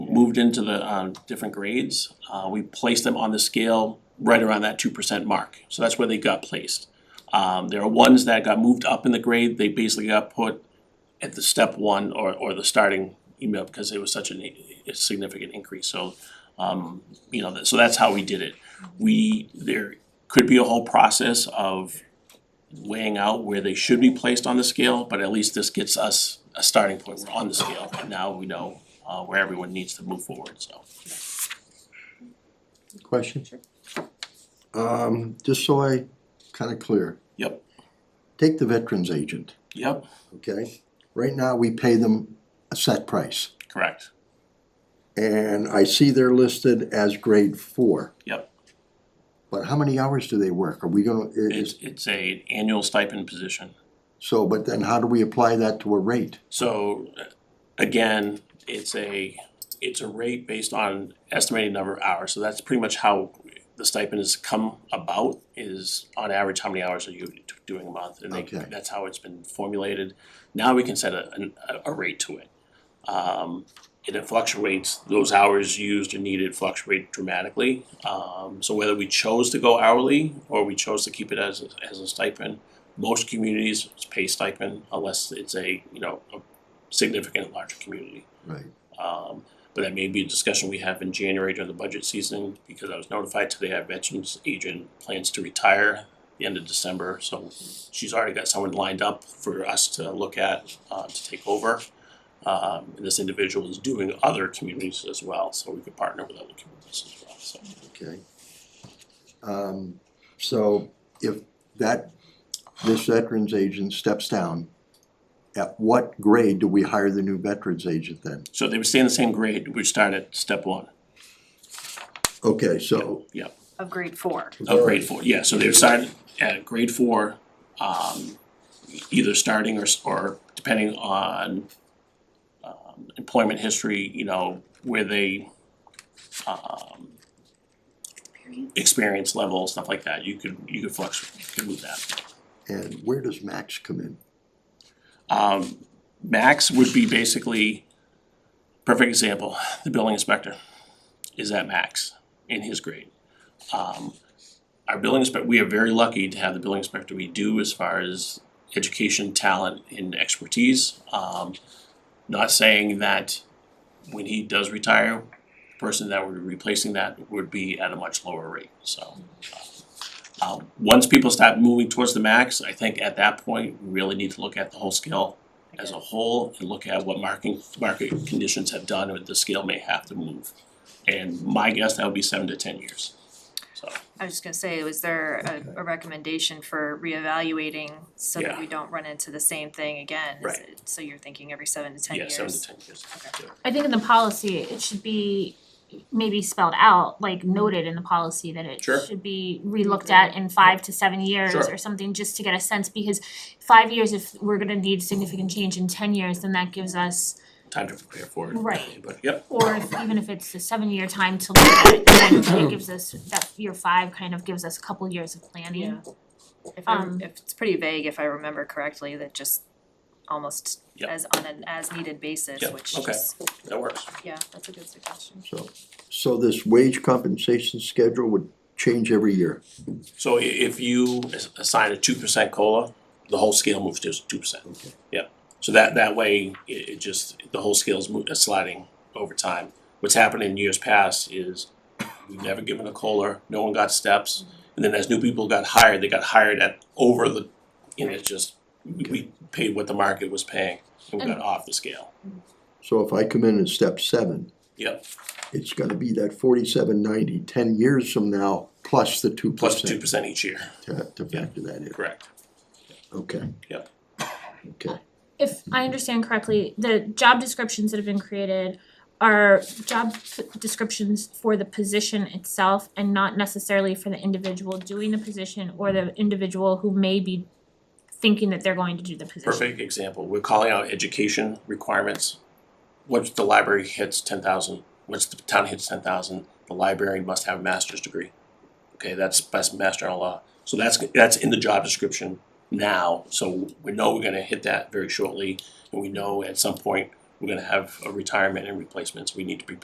moved into the um different grades, uh we placed them on the scale right around that two percent mark, so that's where they got placed. Um there are ones that got moved up in the grade, they basically got put at the step one or or the starting E email because it was such an i- a significant increase, so um you know, that- so that's how we did it. We, there could be a whole process of weighing out where they should be placed on the scale, but at least this gets us a starting point, we're on the scale, and now we know uh where everyone needs to move forward, so. Question? Um, just so I kinda clear, Yep, take the veterans agent, yep, okay? Right now, we pay them a set price, correct, and I see they're listed as grade four. yep. But how many hours do they work? Are we gonna, i- It's is, it's a annual stipend position. so, but then how do we apply that to a rate? So uh, again, it's a, it's a rate based on estimated number of hours, so that's pretty much how the stipend has come about is on average, how many hours are you t- doing a month? And they, Okay. that's how it's been formulated. Now we can set a, an- a, a rate to it. Um, and it fluctuates, those hours used or needed fluctuate dramatically. Um, so whether we chose to go hourly or we chose to keep it as, a- as a stipend, most communities pay stipend unless it's a, you know, a significant larger community. Right. Um, but that may be a discussion we have in January during the budget season, because I was notified today our veterans agent plans to retire the end of December, so she's already got someone lined up for us to look at, uh, to take over. Um, and this individual is doing other communities as well, so we could partner with other communities as well, so. Okay. Um, so if that, this veterans agent steps down, at what grade do we hire the new veterans agent then? So they would stay in the same grade, we start at step one. Okay, so. Yeah, of grade four. of grade four, yeah, so they would start at grade four, um, either starting or, s- or depending on um, employment history, you know, where they, um, experience level, stuff like that, you could, you could flex, you could move that. And where does max come in? Um, max would be basically, perfect example, the building inspector is at max in his grade. Um, our building inspector, we are very lucky to have the building inspector we do as far as education, talent, and expertise. Um, not saying that when he does retire, the person that would be replacing that would be at a much lower rate, so. Um, once people stop moving towards the max, I think at that point, we really need to look at the whole scale as a whole and look at what marking, market conditions have done or the scale may have to move. And my guess, that would be seven to ten years, so. I was just gonna say, was there a, a recommendation for reevaluating so that Yeah. we don't run into the same thing again? Is Right. it- So you're thinking every seven to ten Yeah, years? seven to ten years. I think in the policy, it should be maybe spelled out, like noted in the policy that it Mm-hmm. Sure. should be relooked at in five to seven years Sure. or something, just to get a sense, because five years, if we're gonna need significant change in ten years, then that gives us, Time to prepare for it. Right. But, yep, or if even if it's a seven-year time to look at it, then it gives us, that year five kind of gives us a couple years of Yeah. planning. Mm-hmm. If I, Um, if it's pretty vague, if I remember correctly, that just almost Yep. as on an as needed basis, Yep, which okay. just, that works. yeah, that's a good suggestion. So, so this wage compensation schedule would change every year? So i- if you as- assign a two percent COLA, the whole scale moves to two percent. Okay. Yep, so that, that way, it, it just, the whole scale's mo- uh, sliding over time. What's happened in years past is we've never given a COLA, no one got steps. Mm-hmm. And then as new people got hired, they got hired at over the, and it just, we- we paid what the market was paying and we got off the scale. So if I come in at step seven, Yep, it's gonna be that forty-seven ninety, ten years from now, plus the two plus two percent percent each year, to, to factor that in, correct. okay? Yep. Okay, if I understand correctly, the job descriptions that have been created are job f- descriptions for the position itself and not necessarily for the individual doing the position or the individual who may be thinking that they're going to do the position. Perfect example, we're calling out education requirements. Once the library hits ten thousand, once the town hits ten thousand, the library must have a master's degree. Okay, that's that's master in law, so that's that's in the job description now, so we know we're gonna hit that very shortly. And we know at some point, we're gonna have a retirement and replacements, we need to be